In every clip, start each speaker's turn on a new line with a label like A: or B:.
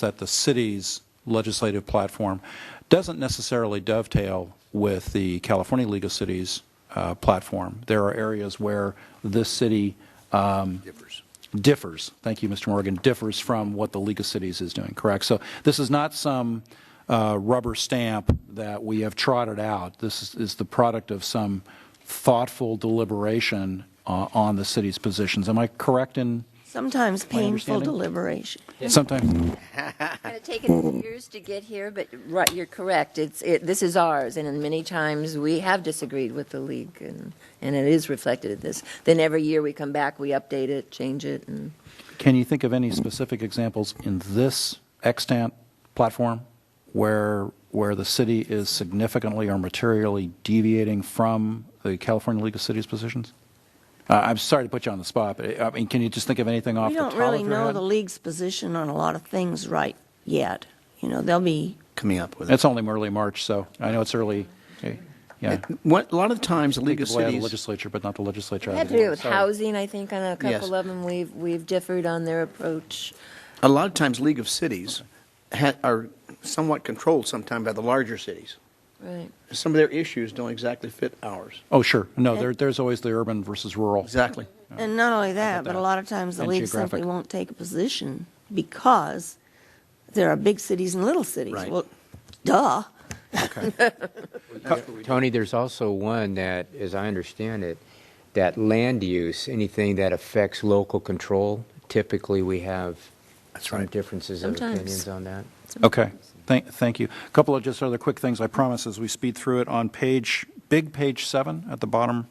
A: that the city's legislative platform doesn't necessarily dovetail with the California League of Cities uh, platform. There are areas where this city um, differs, thank you, Mr. Morgan, differs from what the League of Cities is doing, correct? So this is not some uh, rubber stamp that we have trotted out. This is- is the product of some thoughtful deliberation uh, on the city's positions. Am I correct in
B: Sometimes
A: My
B: painful
A: understanding?
B: deliberation.
A: sometime?
C: Kind of taken years to get here, but right, you're correct. It's, it, this is ours, and many times we have disagreed with the league, and, and it is reflected in this. Then every year we come back, we update it, change it, and
A: Can you think of any specific examples in this extant platform where, where the city is significantly or materially deviating from the California League of Cities positions? Uh, I'm sorry to put you on the spot, but I mean, can you just think of anything off
B: We
A: the top
B: don't
A: of your head?
B: really know the league's position on a lot of things right yet. You know, they'll be,
D: coming up with it.
A: It's only early March, so I know it's early. Okay, Yeah.
D: What, a lot of times, the League of
A: Think of the
D: Cities,
A: legislature, but not the legislature.
C: it
A: out
C: had
A: of
C: to
A: the
C: do with
A: Sorry.
C: housing. I think on a couple of them, we've we've differed on their approach.
D: a lot of times, League of Cities ha- are somewhat controlled sometimes by the larger cities.
C: Right.
D: Some of their issues don't exactly fit ours.
A: Oh, sure. No, there, there's always the urban versus rural.
D: Exactly.
B: and not only that, but
A: that.
B: a lot of times the
A: And
B: league
A: geographic.
B: simply won't take a position because there are big cities and little cities.
D: Right.
B: Well, duh.
E: Tony, there's also one that, as I understand it, that land use, anything that affects local control, typically we have some differences of
C: Sometimes.
E: opinions on that.
A: Okay, thank, thank you. A Couple of just other quick things, I promise, as we speed through it. On page, big page seven, at the bottom,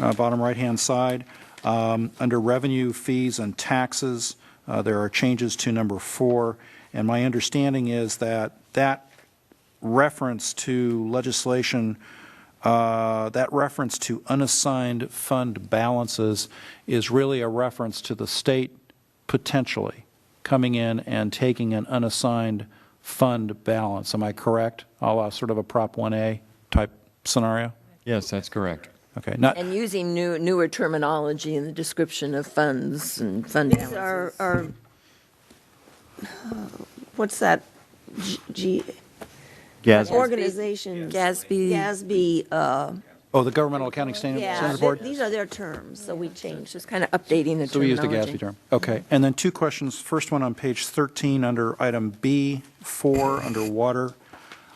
A: uh, bottom right-hand side, um, under revenue, fees, and taxes, uh, there are changes to number four, and my understanding is that that reference to legislation, uh, that reference to unassigned fund balances is really a reference to the state potentially coming in and taking an unassigned fund balance. Am I correct? A la sort of a Prop 1A type scenario?
F: Yes, that's correct.
A: Okay, not,
C: And using new newer terminology in the description of funds and fund
B: These are,
C: balances.
B: are, uh, what's that? G, G- organization?
C: Gatsby.
B: GASB, uh,
A: oh, the Governmental Accounting Standards
B: yeah,
A: Standards
B: th-
A: Board?
B: these are their terms, so we change
C: Just kind of updating the terminology.
A: So we used the Gatsby term. Okay. And then two questions. First one on page 13, under item B4, under water.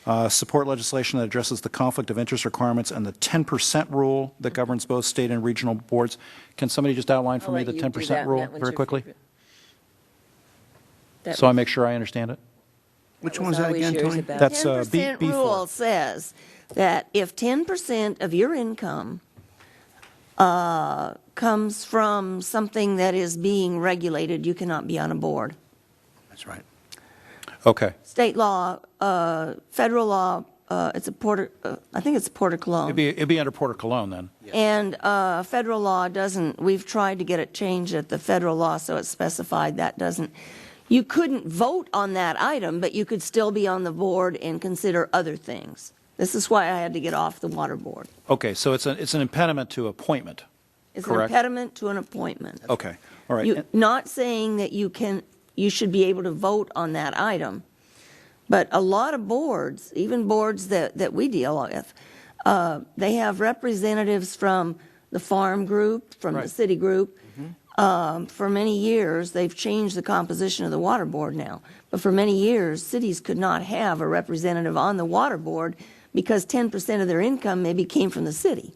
A: Uh, Support legislation that addresses the conflict of interest requirements and the 10% rule that governs both state and regional boards. Can somebody just outline for
C: I'll
A: me
C: let
A: the
C: you do
A: 10%
C: that.
A: rule
C: That one's
A: very
C: your
A: quickly?
C: favorite. That
A: So I
C: was-
A: make sure I understand it?
D: Which
C: was
D: one was that
C: always
D: again,
C: yours
D: Tony?
C: about-
A: That's uh, B-
B: Ten percent
A: B4.
B: rule says that if ten percent of your income uh, comes from something that is being regulated, you cannot be on a board.
D: That's right.
A: Okay.
B: State law, uh, federal law, uh, it's a Porter, uh, I think it's Porter
A: It'd
B: Cologne.
A: be, it'd be under Porter Cologne then.
B: And uh, federal law doesn't, we've tried to get it changed at the federal law, so it's specified that doesn't. You couldn't vote on that item, but you could still be on the board and consider other things. This is why I had to get off the water board.
A: Okay. So it's an, it's an impediment to appointment.
B: It's an
A: Correct.
B: impediment to an appointment.
A: Okay. All right.
B: You- Not saying that you can, you should be able to vote on that item, but a lot of boards, even boards that, that we deal with, uh, they have representatives from the farm group, from the
A: Right. Mm-hmm.
B: city group. Um, For many years, they've changed the composition of the water board now, but for many years, cities could not have a representative on the water board because 10% of their income maybe came from the city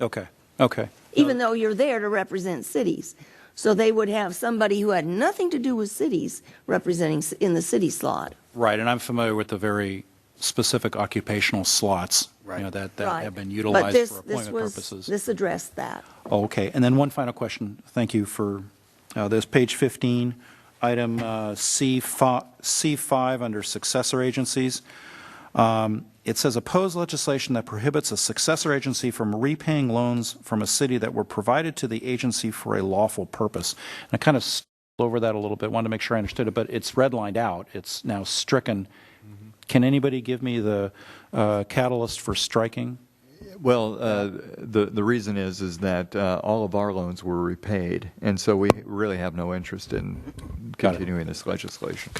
A: Okay. Okay.
B: even though you're there to represent cities. So they would have somebody who had nothing to do with cities representing s- in the city slot.
A: Right, and I'm familiar with the very specific occupational slots, you know,
D: Right.
A: that, that
B: Right.
A: have been
B: But
A: utilized
B: this-
A: for
B: this
A: appointment
B: was-
A: purposes.
B: This addressed that.
A: Oh, Okay, and then one final question, thank you for uh, this, page 15, item uh, C5, C5 under successor agencies. Um, It says, oppose legislation that prohibits a successor agency from repaying loans from a city that were provided to the agency for a lawful purpose. And I kind of stole over that a little bit, wanted to make sure I understood it, but it's redlined out, it's now stricken. Can anybody give me the uh, catalyst for striking?
F: Well, uh, the the reason is is that uh, all of our loans were repaid, and so we really have no interest in continuing this legislation.